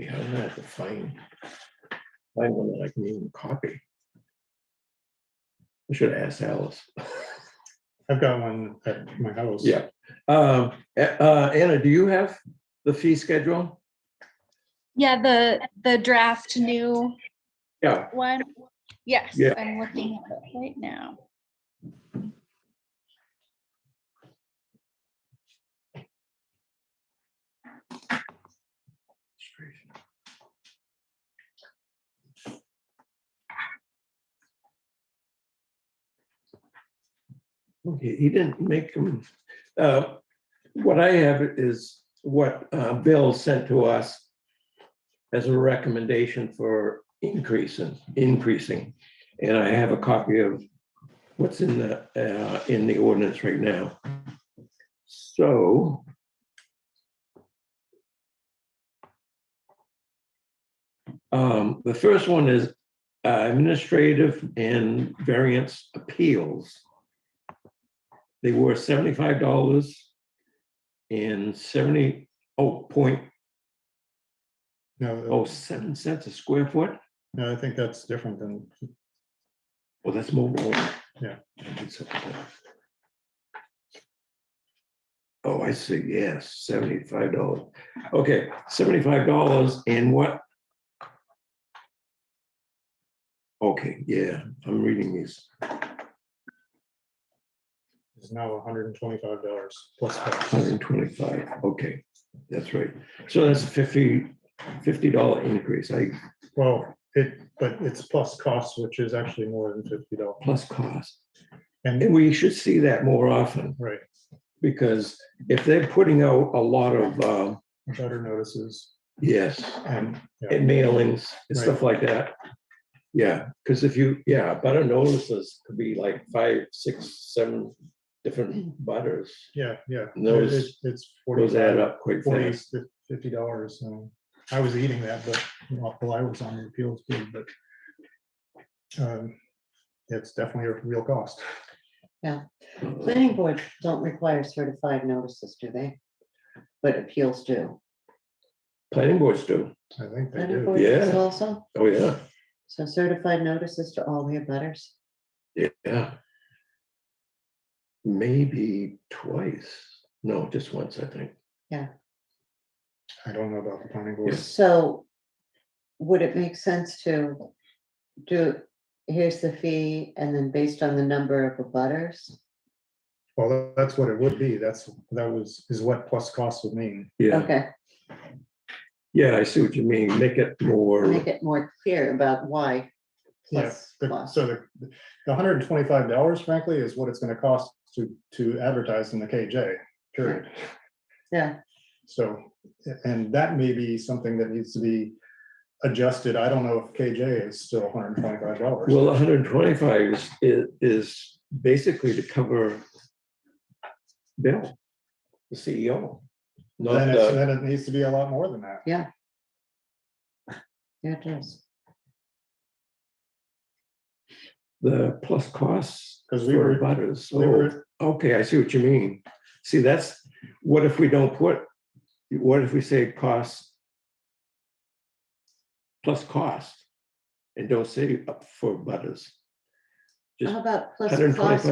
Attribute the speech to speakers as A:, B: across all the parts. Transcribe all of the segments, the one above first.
A: I'm gonna have to find, find one that I can even copy. I should have asked Alice.
B: I've got one at my house.
A: Yeah. Um, A- uh, Anna, do you have the fee schedule?
C: Yeah, the, the draft new
A: Yeah,
C: one. Yes,
A: Yeah.
C: I'm looking at it right now.
A: okay, he didn't make them. Uh, What I have is what uh, Bill sent to us as a recommendation for increasing, increasing. And I have a copy of what's in the, uh, in the ordinance right now. So. Um, the first one is uh, administrative and variance appeals. They were seventy-five dollars and seventy, oh, point
B: No,
A: oh, seven cents a square foot.
B: no, I think that's different than,
A: Well, that's mobile.
B: Yeah.
A: Oh, I see, yes, seventy-five dollars. Okay, seventy-five dollars and what? Okay, yeah, I'm reading these.
B: it's now hundred and twenty-five dollars plus
A: Hundred
B: tax.
A: and twenty-five, okay, that's right. So that's a fifty, fifty dollar increase, I,
B: Well, it, but it's plus costs, which is actually more than fifty dollars.
A: plus cost.
B: And,
A: And we should see that more often,
B: right,
A: because if they're putting out a lot of, uh,
B: better notices
A: yes,
B: and, yeah,
A: and mailings and stuff like that. Yeah, because if you, yeah, butter notices could be like five, six, seven different butters.
B: yeah, yeah.
A: Those-
B: It- It's
A: Those add
B: forty,
A: up quite
B: forty,
A: fast.
B: fifty dollars. I was eating that, but while I was on the appeals board, but um, it's definitely a real cost.
D: Planning boards don't require certified notices, do they? But appeals do.
A: Planning boards do.
B: I think they
D: Planning
B: do.
D: boards
A: Yeah.
D: does Also,
A: Oh, yeah,
D: so certified notices to all the abutters.
A: yeah. Maybe twice. No, just once, I think.
B: I don't know about the planning board.
D: So would it make sense to do, here's the fee, and then based on the number of abutters?
B: Well, tha- that's what it would be. That's, that was, is what plus cost would mean.
A: Yeah,
D: Okay,
A: yeah, I see what you mean. Make it more,
D: make it more clear about why.
B: Yeah,
D: plus
B: the-
D: cost.
B: So the, the hundred and twenty-five dollars frankly is what it's gonna cost to, to advertise in the KJ, period.
D: Yeah,
B: So, and that may be something that needs to be adjusted. I don't know if KJ is still hundred and twenty-five dollars.
A: well, hundred and twenty-five is, is- is basically to cover Bill, the CEO. not
B: Then it's,
A: the-
B: then it needs to be a lot more than that.
D: yeah, it does.
A: The plus costs.
B: 'Cause we
A: for
B: were-
A: Butters.
B: we were-
A: Oh, Okay, I see what you mean. See, that's, what if we don't put, what if we say costs? Plus cost and don't say up for butters. Just
D: How about plus cost
A: $125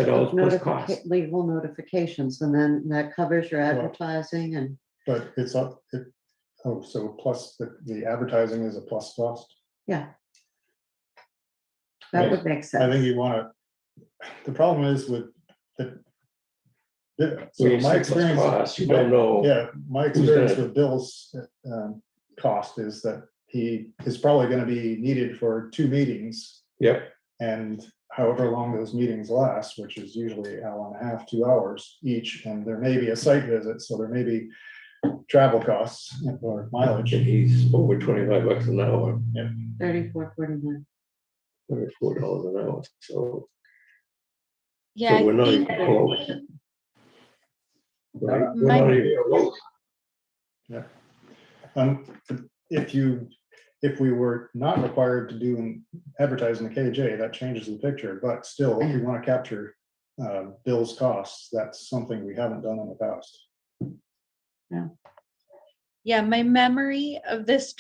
D: of
A: plus cost.
D: notifica- legal notifications, and then that covers your
B: Well-
D: advertising and.
B: But it's up, it, oh, so plus the, the advertising is a plus cost.
D: That
B: Yes.
D: would make sense.
B: I think you wanna, the problem is with the. the-
A: when
B: so
A: you say
B: my
A: plus
B: experience,
A: cost, You don't know.
B: yeah, my
A: Who's
B: experience
A: that?
B: with Bill's um, cost is that he is probably gonna be needed for two meetings.
A: Yep,
B: And however long those meetings last, which is usually an hour and a half, two hours each, and there may be a site visit, so there may be travel costs or mileage.
A: and he's over twenty-five bucks an hour,
D: Thirty-four, forty-nine.
A: or four dollars an hour, so,
C: Yeah,
A: so
C: I
A: we're not even
C: think
A: close. Right? We're
C: My-
A: not even close.
B: Um, if you, if we were not required to do an advertising the KJ, that changes the picture, but still, if you want to capture. Uh, Bill's costs, that's something we haven't done in the past.
C: yeah, my memory of this